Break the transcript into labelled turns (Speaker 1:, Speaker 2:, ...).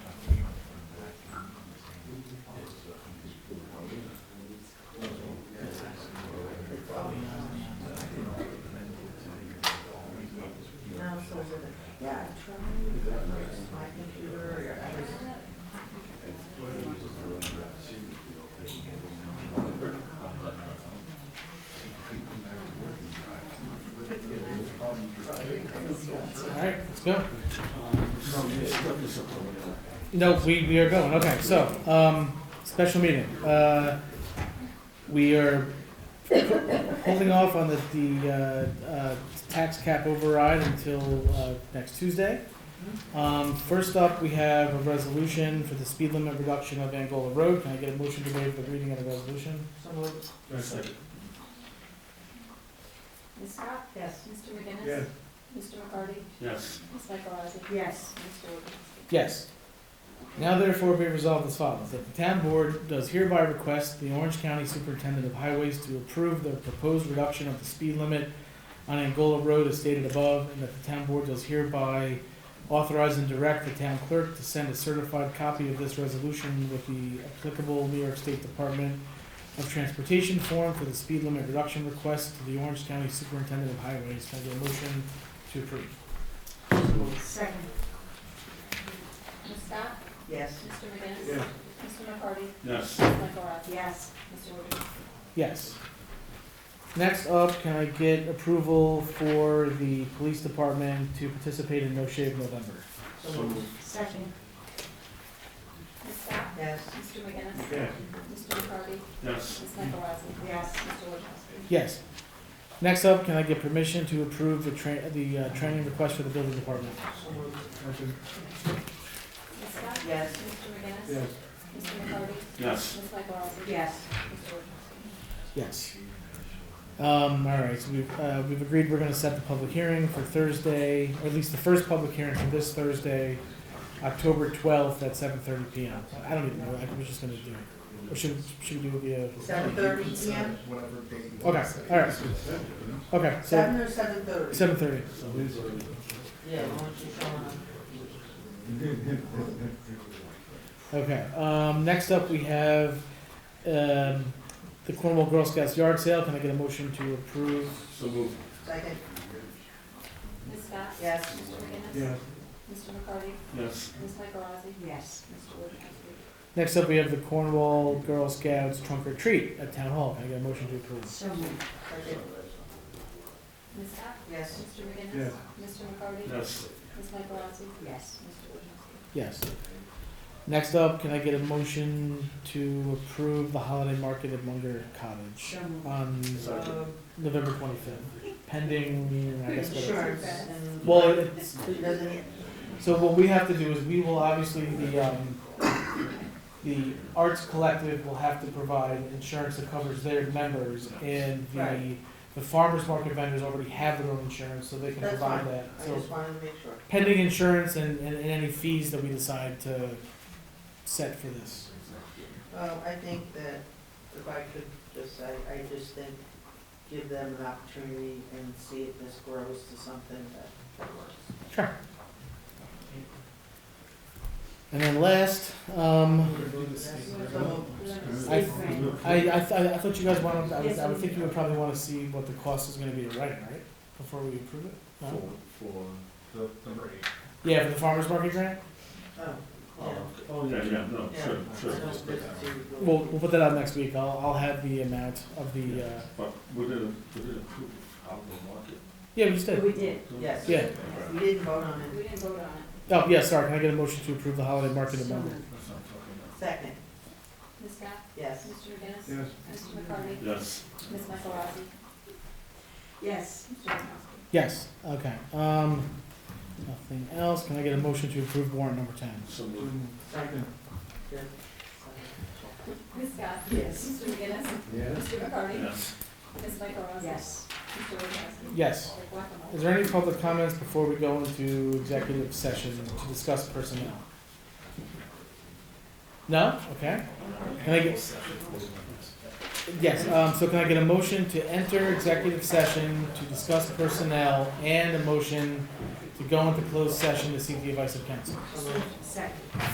Speaker 1: Yeah.
Speaker 2: No, this, this is a-
Speaker 1: No, we, we are going, okay, so, um, special meeting, uh, we are holding off on the, the, uh, uh, tax cap override until, uh, next Tuesday. Um, first up, we have a resolution for the speed limit reduction of Angola Road, can I get a motion to waive the reading of the resolution?
Speaker 3: Ms. Scott?
Speaker 4: Yes.
Speaker 3: Mr. McGinnis?
Speaker 2: Yeah.
Speaker 3: Mr. McCarty?
Speaker 2: Yes.
Speaker 3: Ms. Michaelozzi?
Speaker 4: Yes.
Speaker 3: Mr. Wojciechowski?
Speaker 1: Yes. Now therefore be resolved as follows, that the town board does hereby request the Orange County Superintendent of Highways to approve the proposed reduction of the speed limit on Angola Road as stated above, and that the town board does hereby authorize and direct the town clerk to send a certified copy of this resolution with the applicable New York State Department of Transportation form for the speed limit reduction request to the Orange County Superintendent of Highways. Can I get a motion to approve?
Speaker 4: Second.
Speaker 3: Ms. Scott?
Speaker 4: Yes.
Speaker 3: Mr. McGinnis?
Speaker 2: Yeah.
Speaker 3: Mr. McCarty?
Speaker 2: Yes.
Speaker 3: Ms. Michaelozzi?
Speaker 4: Yes.
Speaker 3: Mr. Wojciechowski?
Speaker 1: Yes. Next up, can I get approval for the police department to participate in No Shave November?
Speaker 2: So moved.
Speaker 4: Second.
Speaker 3: Ms. Scott?
Speaker 4: Yes.
Speaker 3: Mr. McGinnis?
Speaker 2: Yeah.
Speaker 3: Mr. McCarty?
Speaker 2: Yes.
Speaker 3: Ms. Michaelozzi?
Speaker 4: Yes.
Speaker 3: Mr. Wojciechowski?
Speaker 1: Yes. Next up, can I get permission to approve the tra- the, uh, training request for the building department?
Speaker 3: Ms. Scott?
Speaker 4: Yes.
Speaker 3: Mr. McGinnis?
Speaker 2: Yes.
Speaker 3: Mr. McCarty?
Speaker 2: Yes.
Speaker 3: Ms. Michaelozzi?
Speaker 4: Yes.
Speaker 3: Mr. Wojciechowski?
Speaker 1: Yes. Um, all right, so we've, uh, we've agreed we're gonna set the public hearing for Thursday, or at least the first public hearing for this Thursday, October twelfth at seven thirty P M. I don't even know, I was just gonna do it. Or should, should we do it via?
Speaker 4: Seven thirty PM?
Speaker 5: Whatever day you want
Speaker 1: Okay,
Speaker 5: to say.
Speaker 1: all right. Okay, so
Speaker 4: Seven or seven thirty?
Speaker 1: seven thirty.
Speaker 4: Yeah, why don't you show them?
Speaker 1: Okay. Um, next up, we have um, the Cornwall Girl Scouts yard sale. Can I get a motion to approve?
Speaker 2: So moved.
Speaker 4: Second.
Speaker 3: Ms. Scott?
Speaker 4: Yes.
Speaker 3: Mr. McGinnis? Mr. McCarty?
Speaker 2: Yes.
Speaker 3: Ms. Michaelozzi?
Speaker 4: Yes.
Speaker 3: Mr. Wojciechowski?
Speaker 1: Next up, we have the Cornwall Girl Scouts trunk or treat at Town Hall. Can I get a motion to approve?
Speaker 4: So moved. Second.
Speaker 3: Ms. Scott?
Speaker 4: Yes.
Speaker 3: Mr. McGinnis?
Speaker 2: Yeah.
Speaker 3: Mr. McCarty?
Speaker 2: Yes.
Speaker 3: Ms. Michaelozzi?
Speaker 4: Yes.
Speaker 3: Mr. Wojciechowski?
Speaker 1: Yes. Next up, can I get a motion to approve the holiday market at Munger Cottage
Speaker 4: moved.
Speaker 1: on
Speaker 2: Second.
Speaker 4: Um,
Speaker 1: November twenty fifth, pending? I guess. what it-
Speaker 4: Insurance and.
Speaker 1: Well, it's,
Speaker 4: It doesn't,
Speaker 1: So what we have to do is we will obviously, the, um, the Arts Collective will have to provide insurance that covers their members and the,
Speaker 4: Right.
Speaker 1: the farmer's market vendors already have their own insurance, so they can
Speaker 4: That's
Speaker 1: provide
Speaker 4: fine.
Speaker 1: that.
Speaker 4: I
Speaker 1: So
Speaker 4: just wanted to make sure.
Speaker 1: pending insurance and, and and any fees that we decide to set for this.
Speaker 4: Well, I think that if I could just, I, I just think, give them an opportunity and see if this grows to something that that works.
Speaker 1: And then last, um,
Speaker 4: So,
Speaker 1: I, I, I, th- I thought you guys wanted, I would, I would think you would probably wanna see what the cost is gonna be to writing, right? Before we approve it?
Speaker 5: For,
Speaker 1: No?
Speaker 5: for the number eight.
Speaker 1: Yeah, for the farmer's market grant?
Speaker 4: oh, yeah.
Speaker 2: Oh, yeah, yeah, no,
Speaker 4: Yeah.
Speaker 2: sure, sure.
Speaker 4: So it's good to-
Speaker 1: We'll, we'll put that out next week. I'll, I'll have the amount of the, uh,
Speaker 2: But we didn't, we didn't approve out of the market.
Speaker 1: yeah, we just did.
Speaker 4: We did, yes.
Speaker 1: Yeah.
Speaker 4: We didn't vote on
Speaker 3: We
Speaker 4: it.
Speaker 3: didn't vote on it.
Speaker 1: Oh, yeah, sorry. Can I get a motion to approve the holiday market amendment?
Speaker 2: That's not talking
Speaker 4: Second,
Speaker 3: Ms. Scott?
Speaker 4: yes.
Speaker 3: Mr. McGinnis?
Speaker 2: Yes.
Speaker 3: Mr. McCarty?
Speaker 2: about. Yes.
Speaker 3: Ms. Michaelozzi?
Speaker 4: Yes.
Speaker 3: Mr. Wojciechowski?
Speaker 1: Yes, okay. Um, nothing else. Can I get a motion to approve warrant number ten?
Speaker 2: So moved.
Speaker 4: Second. Good.
Speaker 3: Ms. Scott?
Speaker 4: Yes.
Speaker 3: Mr. McGinnis?
Speaker 5: Yes.
Speaker 3: Mr. McCarty?
Speaker 2: Yes.
Speaker 3: Ms. Michaelozzi?
Speaker 4: Yes.
Speaker 3: Mr. Wojciechowski?
Speaker 1: Yes.
Speaker 3: Like guacamole.
Speaker 1: Is there any public comments before we go into executive session to discuss personnel? No? Okay. Can I get, yes, um, so can I get a motion to enter executive session to discuss personnel and a motion to go into closed session to seek the advice of counsel?
Speaker 4: Second.